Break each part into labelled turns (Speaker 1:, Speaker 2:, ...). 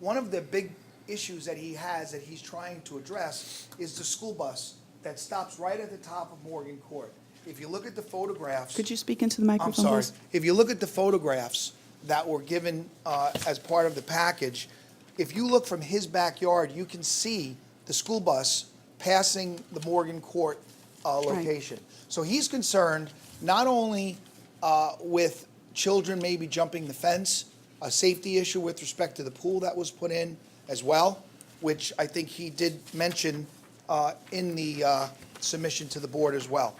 Speaker 1: one of the big issues that he has that he's trying to address is the school bus that stops right at the top of Morgan Court. If you look at the photographs.
Speaker 2: Could you speak into the
Speaker 1: I'm
Speaker 2: microphone,
Speaker 1: sorry.
Speaker 2: please?
Speaker 1: If you look at the photographs that were given uh, as part of the package, if you look from his backyard, you can see the school bus passing the Morgan Court uh, location. So he's concerned not only uh, with children maybe jumping the fence, a safety issue with respect to the pool that was put in as well, which I think he did mention uh, in the uh, submission to the board as well.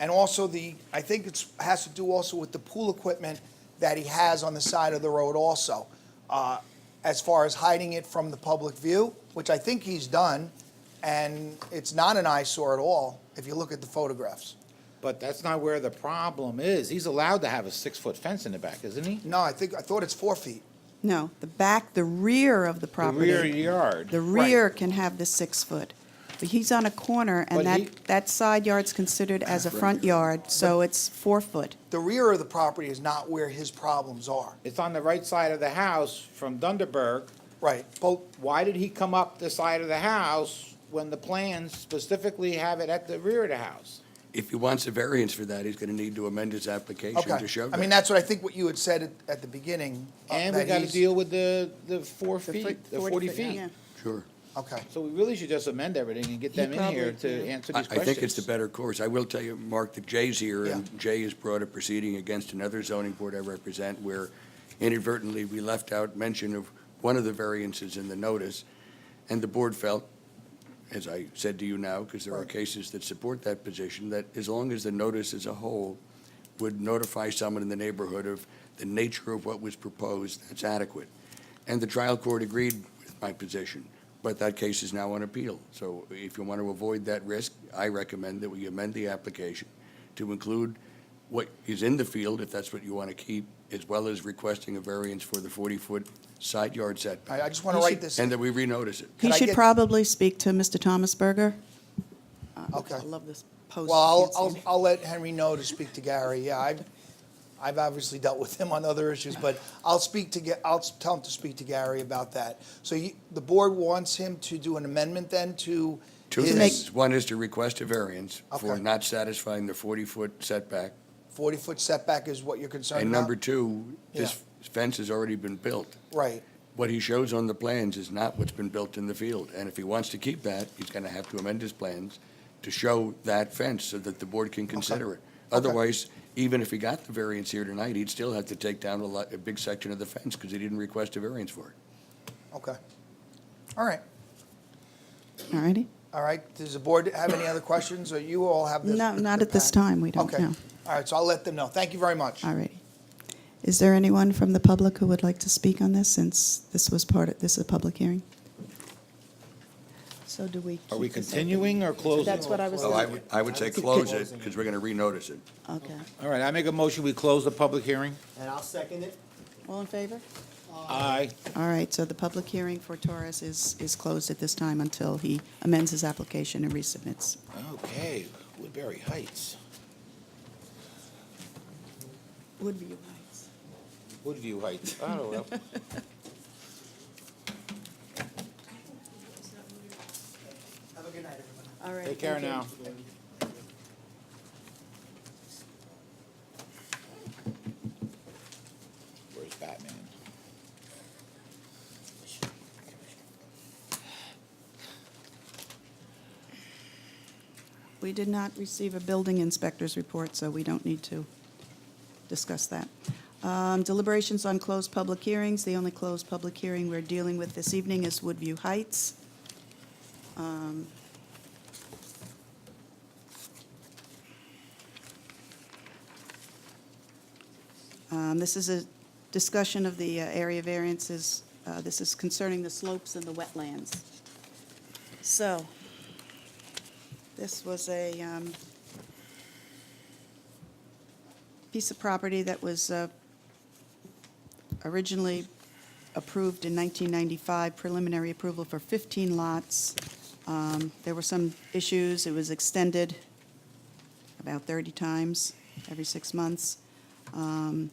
Speaker 1: And also the, I think it's, has to do also with the pool equipment that he has on the side of the road also. uh, As far as hiding it from the public view, which I think he's done, and it's not an eyesore at all, if you look at the photographs.
Speaker 3: But that's not where the problem is. He's allowed to have a six-foot fence in the back, isn't he?
Speaker 1: No, I think, I thought it's four feet.
Speaker 2: No, the back, the rear of the
Speaker 3: The rear
Speaker 2: property. The
Speaker 3: yard.
Speaker 2: rear can have the six-foot. But he's on a corner,
Speaker 3: But
Speaker 2: and
Speaker 3: he-
Speaker 2: that, that side yard's considered as a front yard, so it's four-foot.
Speaker 1: The rear of the property is not where his problems are.
Speaker 3: It's on the right side of the house from Dunderberg.
Speaker 1: Right,
Speaker 3: But why did he come up the side of the house when the plans specifically have it at the rear of the house?
Speaker 4: If he wants a variance for that, he's going to need to amend his application
Speaker 1: okay.
Speaker 4: to show
Speaker 1: I mean,
Speaker 4: that.
Speaker 1: that's what I think what you had said at, at the beginning. uh,
Speaker 3: And we
Speaker 1: that
Speaker 3: gotta
Speaker 1: he's-
Speaker 3: deal with the, the four feet,
Speaker 2: foot-
Speaker 3: the forty feet.
Speaker 2: yeah.
Speaker 4: Sure.
Speaker 1: Okay.
Speaker 3: So we really should just amend everything and get
Speaker 2: He
Speaker 3: them in here
Speaker 2: probably
Speaker 3: to
Speaker 2: can.
Speaker 3: answer
Speaker 4: I
Speaker 3: these
Speaker 4: I
Speaker 3: questions.
Speaker 4: think it's the better course. I will tell you, Mark, that Jay's here,
Speaker 1: Yeah.
Speaker 4: and Jay has brought a proceeding against another zoning board I represent where inadvertently we left out mention of one of the variances in the notice, and the board felt, as I said to you now, because there are
Speaker 1: Right.
Speaker 4: cases that support that position, that as long as the notice as a whole would notify someone in the neighborhood of the nature of what was proposed, that's adequate. And the trial court agreed with my position, but that case is now on appeal. So if you want to avoid that risk, I recommend that we amend the application to include what is in the field, if that's what you want to keep, as well as requesting a variance for the 40-foot side yard
Speaker 1: I, I
Speaker 4: setback,
Speaker 1: just want to write this.
Speaker 4: and that we renotice it.
Speaker 2: He
Speaker 1: Could I
Speaker 2: should
Speaker 1: get-
Speaker 2: probably speak to Mr. Thomas Berger.
Speaker 1: Okay.
Speaker 2: Uh, I love this post.
Speaker 1: Well,
Speaker 2: Can't see
Speaker 1: I'll, I'll,
Speaker 2: me.
Speaker 1: I'll let Henry know to speak to Gary, yeah, I've, I've obviously dealt with him on other issues, but I'll speak to, Ga- I'll tell him to speak to Gary about that. So you, the board wants him to do an amendment then to
Speaker 4: Two
Speaker 2: To make-
Speaker 1: his
Speaker 4: things. One is to request a variance for
Speaker 1: Okay.
Speaker 4: not satisfying the 40-foot setback.
Speaker 1: forty-foot setback is what you're concerned
Speaker 4: And
Speaker 1: about?
Speaker 4: number two, this fence has already been built.
Speaker 1: Right,
Speaker 4: What he shows on the plans is not what's been built in the field. And if he wants to keep that, he's going to have to amend his plans to show that fence so that the board can consider it. Otherwise, even if he got the variance here tonight, he'd still have to take down a lot, a big section of the fence because he didn't request a variance for it.
Speaker 1: okay. All right,
Speaker 2: All righty.
Speaker 1: all right, does the board have any other questions, or you all have this?
Speaker 2: No, not
Speaker 1: the
Speaker 2: at this
Speaker 1: pack?
Speaker 2: time. We don't
Speaker 1: Okay,
Speaker 2: know.
Speaker 1: all right, so I'll let them know, thank you very much.
Speaker 2: All righty. Is there anyone from the public who would like to speak on this, since this was part of, this is a public hearing? So do we?
Speaker 3: Are we
Speaker 2: keep this open?
Speaker 3: continuing or closing?
Speaker 2: That's what I was
Speaker 3: Oh,
Speaker 4: So I
Speaker 2: thinking.
Speaker 4: would, I would say close it because we're going to renotice it.
Speaker 2: Okay.
Speaker 3: All right, I make a motion, we close the public hearing.
Speaker 5: And I'll second it.
Speaker 2: All in favor?
Speaker 3: Aye.
Speaker 2: All right, so the public hearing for Torres is, is closed at this time until he amends his application and resubmits.
Speaker 3: Okay, Woodbury Heights,
Speaker 2: Woodview Heights.
Speaker 3: Woodview Heights, I don't know.
Speaker 1: Have a good night, everyone.
Speaker 2: All right.
Speaker 3: Take care
Speaker 2: thank you.
Speaker 3: now. Where's Batman?
Speaker 2: We did not receive a building inspector's report, so we don't need to discuss that. Um, Deliberations on closed public hearings, the only closed public hearing we're dealing with this evening is Woodview Heights. Um, um, This is a discussion of the uh, area variances. Uh, This is concerning the slopes and the wetlands. So, this was a um, piece of property that was uh, originally approved in 1995, preliminary approval for 15 lots. Um, There were some issues, it was extended about 30 times every six months. Um,